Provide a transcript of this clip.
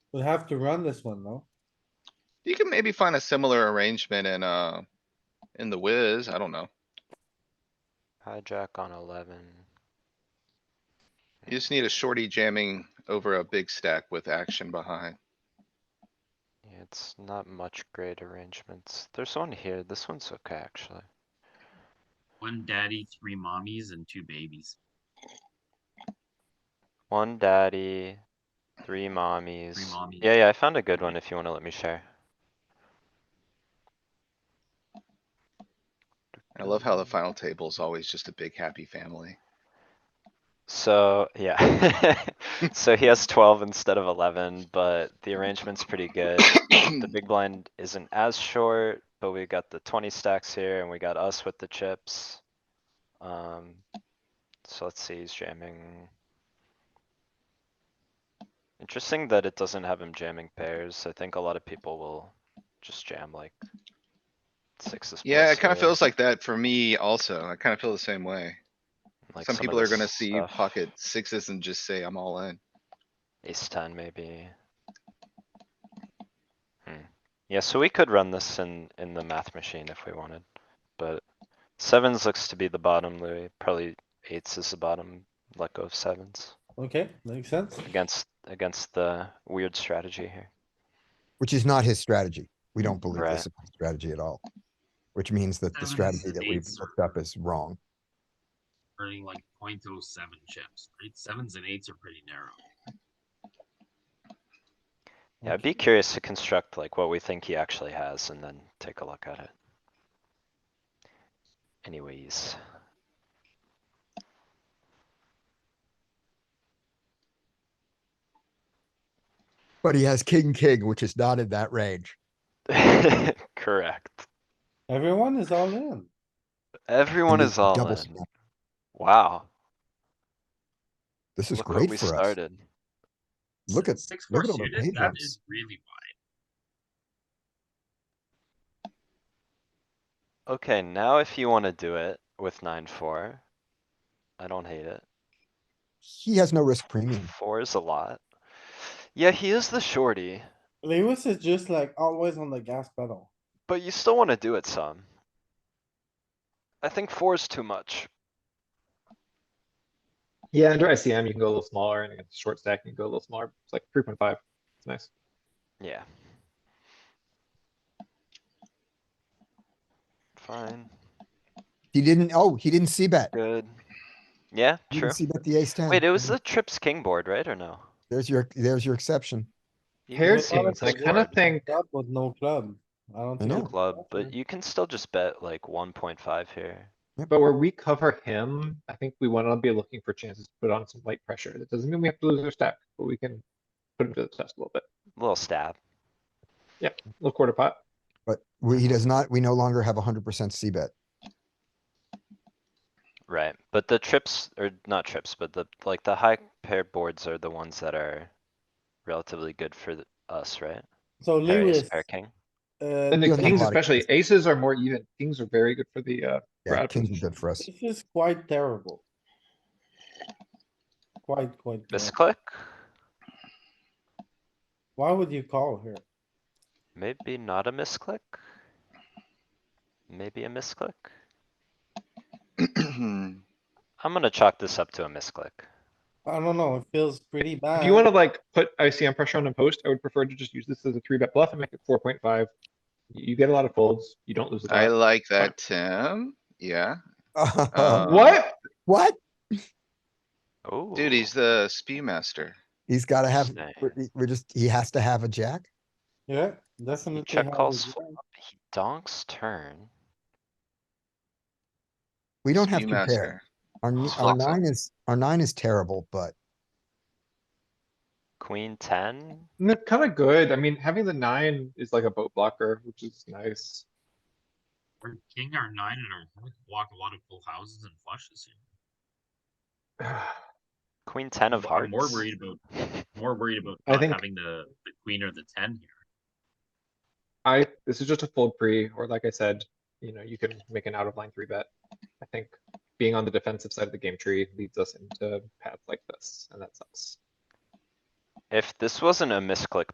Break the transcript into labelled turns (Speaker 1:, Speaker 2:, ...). Speaker 1: We'll have to run this one, no?
Speaker 2: You can maybe find a similar arrangement in, uh, in the whiz, I don't know.
Speaker 3: Hijack on eleven.
Speaker 2: You just need a shorty jamming over a big stack with action behind.
Speaker 3: Yeah, It's not much great arrangements. There's one here. This one's okay, actually.
Speaker 4: One daddy, three mommies, and two babies.
Speaker 3: One daddy, three mommies.
Speaker 4: mommies.
Speaker 3: Yeah, yeah, I found a good one if you wanna let me share.
Speaker 2: I love
Speaker 3: Mm.
Speaker 2: how the final table is always just a big happy family.
Speaker 3: So, yeah. So he has twelve instead of eleven, but the arrangement's pretty good. The big blind isn't as short, but we got the twenty stacks here and we got us with the chips. Um, so let's see, he's jamming. Interesting that it doesn't have him jamming pairs. I think a lot of people will just jam like sixes.
Speaker 2: Yeah,
Speaker 3: plus
Speaker 2: it kinda
Speaker 3: here,
Speaker 2: feels like that for me also. I kinda feel the same way.
Speaker 3: like
Speaker 2: Some
Speaker 3: of
Speaker 2: people are
Speaker 3: this
Speaker 2: gonna see
Speaker 3: stuff.
Speaker 2: pocket sixes and just say, I'm all in.
Speaker 3: Ace ten maybe. Hmm. Yeah, so we could run this in, in the math machine if we wanted, but sevens looks to be the bottom, Louis. Probably eights is the bottom. Let go of sevens
Speaker 1: Okay, makes sense.
Speaker 3: against, against the weird strategy here.
Speaker 5: which is not his strategy. We don't believe
Speaker 3: Right.
Speaker 5: this is his strategy at all. Which means that the
Speaker 4: Seven
Speaker 5: strategy
Speaker 4: is
Speaker 5: that we've
Speaker 4: eights.
Speaker 5: looked up is wrong.
Speaker 4: Earning like 0.07 chips, right? Sevens and eights are pretty narrow.
Speaker 3: Yeah, I'd be curious to construct like what we think he actually has and then take a look at it. Anyways,
Speaker 5: But he has king, king, which is not in that range.
Speaker 3: correct.
Speaker 1: Everyone is all in.
Speaker 3: Everyone
Speaker 5: And he's
Speaker 3: is all
Speaker 5: double
Speaker 3: in.
Speaker 5: stacked.
Speaker 3: Wow.
Speaker 5: This is
Speaker 3: Look what
Speaker 5: great
Speaker 3: we
Speaker 5: for us.
Speaker 3: started.
Speaker 5: Look at,
Speaker 4: Six four
Speaker 5: look at all the
Speaker 4: suited, that
Speaker 5: ranges.
Speaker 4: is really wide.
Speaker 3: Okay, now if you wanna do it with nine, four. I don't hate it.
Speaker 5: He has no risk premium.
Speaker 3: Four is a lot. Yeah, he is the shorty,
Speaker 1: Lewis is just like always on the gas pedal.
Speaker 3: but you still wanna do it some. I think four is too much.
Speaker 6: Yeah, under ICM, you can go a little smaller, and against short stack, you can go a little smaller. It's like three point five. It's nice.
Speaker 3: Yeah. Fine,
Speaker 5: He didn't, oh, he didn't see bet.
Speaker 3: good. Yeah,
Speaker 5: He
Speaker 3: true.
Speaker 5: didn't see bet the ace ten.
Speaker 3: Wait, it was the trips king board, right, or no?
Speaker 5: There's your, there's your exception.
Speaker 3: You can
Speaker 6: Pair
Speaker 1: Well,
Speaker 3: see
Speaker 1: seems-
Speaker 6: seems,
Speaker 3: it's
Speaker 6: I
Speaker 1: like
Speaker 3: a
Speaker 6: kind of
Speaker 3: board,
Speaker 6: think,
Speaker 1: Club with no club. I don't
Speaker 5: I
Speaker 1: think.
Speaker 3: no
Speaker 5: know.
Speaker 1: it's
Speaker 3: Club, but
Speaker 1: possible.
Speaker 3: you can still just bet like one point five here.
Speaker 6: but where we cover him, I think we want to be looking for chances to put on some light pressure. That doesn't mean we have to lose our stack, but we can put him to the test a little bit.
Speaker 3: Little stab.
Speaker 6: A little quarter pot.
Speaker 5: But we, he does not, we no longer have hundred percent C bet.
Speaker 3: Right, but the trips, or not trips, but the, like, the high pair boards are the ones that are relatively good for th- us, right?
Speaker 1: So
Speaker 3: Pair ace,
Speaker 1: Lewis,
Speaker 3: pair king.
Speaker 1: uh,
Speaker 6: And
Speaker 5: you
Speaker 6: the
Speaker 5: don't have a
Speaker 6: kings
Speaker 5: lot of
Speaker 6: especially, aces are more even. Kings are very good for the, uh, We're out
Speaker 5: Yeah,
Speaker 6: of
Speaker 5: kings are
Speaker 6: position.
Speaker 5: good for us.
Speaker 1: this is quite terrible. Quite, quite. terrible.
Speaker 3: Misclick?
Speaker 1: Why would you call here?
Speaker 3: Maybe not a misclick? Maybe a misclick? I'm gonna chalk this up to a misclick.
Speaker 1: I don't know, it feels pretty bad.
Speaker 6: if you want to like put ICM pressure on a post, I would prefer to just use this as a three bet bluff and make it four point five. You get a lot of folds. You don't lose the
Speaker 2: I
Speaker 6: pot.
Speaker 2: like that, Tim. Yeah, Uh,
Speaker 6: What?
Speaker 5: What?
Speaker 3: Oh.
Speaker 2: dude, he's the spew master.
Speaker 5: He's gotta have,
Speaker 3: Snake.
Speaker 5: we're- we're just, he has to have a jack.
Speaker 1: Yeah, definitely.
Speaker 3: check
Speaker 1: have a
Speaker 3: calls
Speaker 1: jack.
Speaker 3: He donks turn.
Speaker 5: We don't have
Speaker 2: Spew
Speaker 5: to pair.
Speaker 2: master.
Speaker 5: Our, n- our
Speaker 3: Awesome.
Speaker 5: nine is, our nine is terrible, but
Speaker 3: Queen ten?
Speaker 6: They're kind of good. I mean, having the nine is like a boat blocker, which is nice.
Speaker 4: We're king our nine and our we can block a lot of full houses and flushes here.
Speaker 6: I
Speaker 3: Queen ten of
Speaker 4: I'm
Speaker 3: hearts?
Speaker 4: more worried about more worried about
Speaker 6: I
Speaker 4: not
Speaker 6: think-
Speaker 4: having the, the queen or the ten here.
Speaker 6: this is just a fold pre, or like I said, you know, you can make an out of line three bet. I think being on the defensive side of the game tree leads us into paths like this, and that sucks.
Speaker 3: If this wasn't a misclick